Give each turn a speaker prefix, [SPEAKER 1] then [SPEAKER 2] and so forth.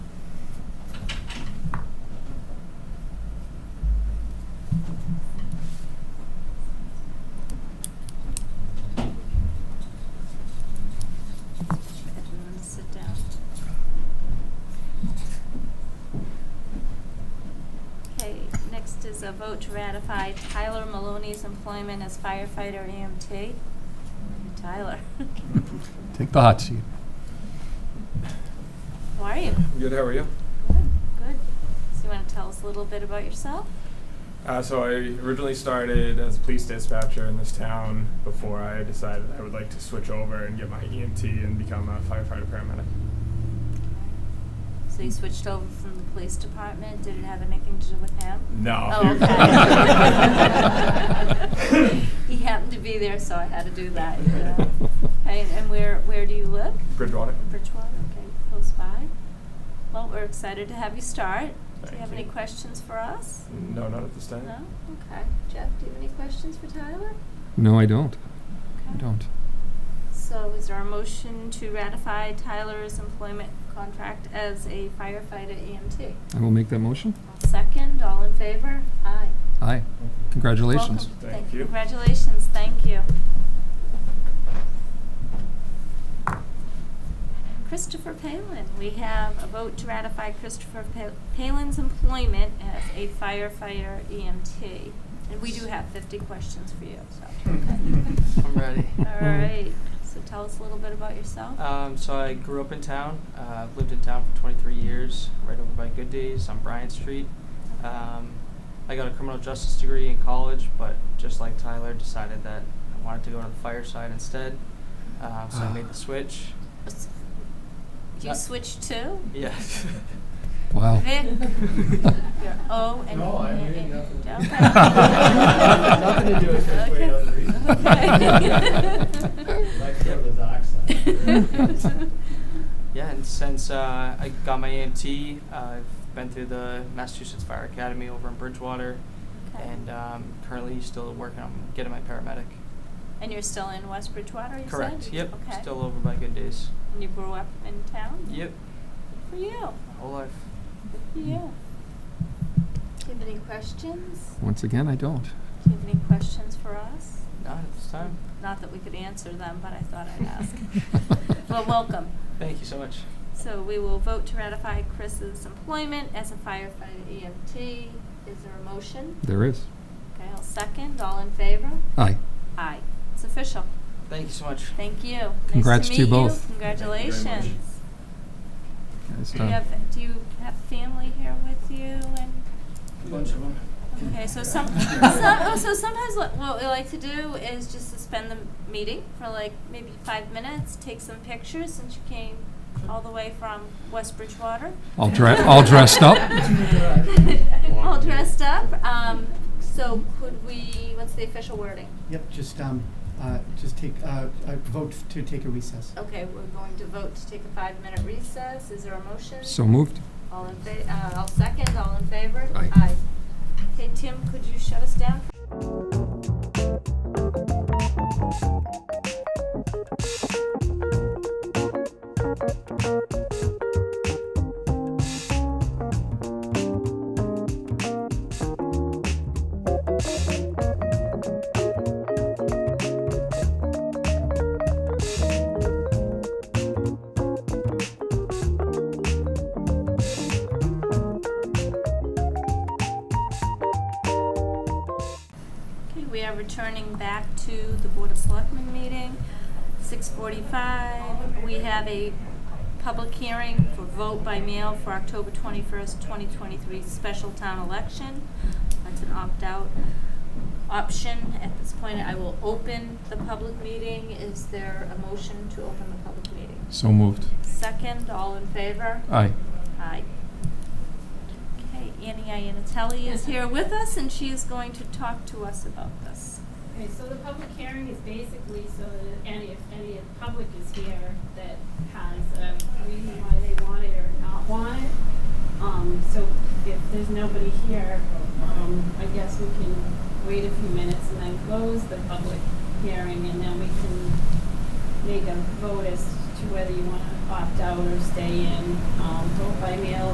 [SPEAKER 1] next is a vote to ratify Tyler Maloney's employment as firefighter EMT. Tyler,
[SPEAKER 2] Take the hot seat.
[SPEAKER 1] how are you?
[SPEAKER 3] Good, how are you?
[SPEAKER 1] Good, good. So you want to tell us a little bit about yourself?
[SPEAKER 3] Uh, so I originally started as a police dispatcher in this town before I decided I would like to switch over and get my EMT and become a firefighter paramedic.
[SPEAKER 1] So you switched over from the police department, did it have anything to do with him?
[SPEAKER 3] No.
[SPEAKER 1] Oh, okay. He happened to be there, so I had to do that. yeah. Hey, and where, where do you live?
[SPEAKER 3] Bridgewater.
[SPEAKER 1] In Bridgewater, okay, close by. Well, we're excited to have you start. Do you
[SPEAKER 3] Thank
[SPEAKER 1] have any
[SPEAKER 3] you. Mm-hmm.
[SPEAKER 1] questions for us?
[SPEAKER 3] No, not at this time.
[SPEAKER 1] No? Okay. Jeff, do you have any questions for Tyler?
[SPEAKER 2] No, I don't. I
[SPEAKER 1] Okay.
[SPEAKER 2] don't.
[SPEAKER 1] So is there a motion to ratify Tyler's employment contract as a firefighter EMT?
[SPEAKER 2] I will make that motion.
[SPEAKER 1] I'll second, all in favor? Aye.
[SPEAKER 2] Aye. Congratulations.
[SPEAKER 1] Welcome.
[SPEAKER 3] Thank you.
[SPEAKER 1] Congratulations, thank you. Christopher Palin, we have a vote to ratify Christopher Pa- Palin's employment as a firefighter EMT. And we do have fifty questions for you, so.
[SPEAKER 4] I'm ready.
[SPEAKER 1] All right, so tell us a little bit about yourself.
[SPEAKER 4] Um, so I grew up in town. Uh, I've lived in town for 23 years, right over by Good Days on Bryant Street. Um, I got a criminal justice degree in college, but just like Tyler, decided that I wanted to go to the fire side instead. Um, so I made the switch.
[SPEAKER 1] You switched to?
[SPEAKER 4] uh, Yeah.
[SPEAKER 2] Wow.
[SPEAKER 1] Vic? You're O and.
[SPEAKER 5] No, I
[SPEAKER 1] and-
[SPEAKER 5] mean nothing.
[SPEAKER 1] Okay.
[SPEAKER 5] Nothing to do with this way, other reason.
[SPEAKER 1] Okay.
[SPEAKER 5] Like to go to the dark side.
[SPEAKER 4] yeah, and since uh, I got my AMT, uh, I've been through the Massachusetts Fire Academy over in Bridgewater,
[SPEAKER 1] Okay.
[SPEAKER 4] and um, currently still working on getting my paramedic.
[SPEAKER 1] And you're still in West Bridgewater, you said?
[SPEAKER 4] Correct. Yep.
[SPEAKER 1] Okay.
[SPEAKER 4] Still over by Good Days.
[SPEAKER 1] And you grew up in town?
[SPEAKER 4] Yep.
[SPEAKER 1] Good For you,
[SPEAKER 4] my Whole life.
[SPEAKER 1] good for you. Do you have any questions?
[SPEAKER 2] Once again, I don't.
[SPEAKER 1] Do you have any questions for us?
[SPEAKER 4] Not at this time.
[SPEAKER 1] Not that we could answer them, but I thought I'd ask. Well, welcome.
[SPEAKER 4] Thank you so much.
[SPEAKER 1] So we will vote to ratify Chris's employment as a firefighter EMT. Is there a motion?
[SPEAKER 2] There is.
[SPEAKER 1] Okay, I'll second. All in favor?
[SPEAKER 2] Aye.
[SPEAKER 1] Aye. It's official.
[SPEAKER 4] Thank you so much.
[SPEAKER 1] Thank you. Nice
[SPEAKER 2] Congrats to you
[SPEAKER 1] meet
[SPEAKER 2] both.
[SPEAKER 3] Thank you very much.
[SPEAKER 1] Congratulations.
[SPEAKER 2] Nice
[SPEAKER 1] Do you
[SPEAKER 2] done.
[SPEAKER 1] have, do you have family here with you and?
[SPEAKER 4] A bunch of them.
[SPEAKER 1] Okay, so some, some, oh, so sometimes what, what we like to do is just suspend the meeting for like maybe five minutes, take some pictures since you came all the way from West Bridgewater.
[SPEAKER 2] All dre- all dressed up?
[SPEAKER 1] All dressed up, um, so could we, what's the official wording?
[SPEAKER 6] Yep, just, um, uh, just take, uh, uh, vote to take a recess.
[SPEAKER 1] Okay, we're going to vote to take a five-minute recess, is there a motion?
[SPEAKER 2] So moved.
[SPEAKER 1] All in fa- uh, I'll second, all in favor?
[SPEAKER 2] Aye.
[SPEAKER 1] Okay, Tim, could you shut us down? Okay, we are returning back to the Board of Selectmen meeting, six forty-five. We have a public hearing for vote by mail for October twenty-first, twenty twenty-three special town election. That's an opt-out option. At this point, I will open the public meeting. Is there a motion to open the public meeting?
[SPEAKER 2] So moved.
[SPEAKER 1] Second, all in favor?
[SPEAKER 2] Aye.
[SPEAKER 1] Hi. Okay, Annie Iannatelli is here with us, and she is going to talk to us about this.
[SPEAKER 7] Okay, so the public hearing is basically so that any, if any of the public is here that has a reason why they want it or not want it. Um, so if there's nobody here, um, I guess we can wait a few minutes and then close the public hearing and then we can make a vote as to whether you wanna opt out or stay in. Um, vote by mail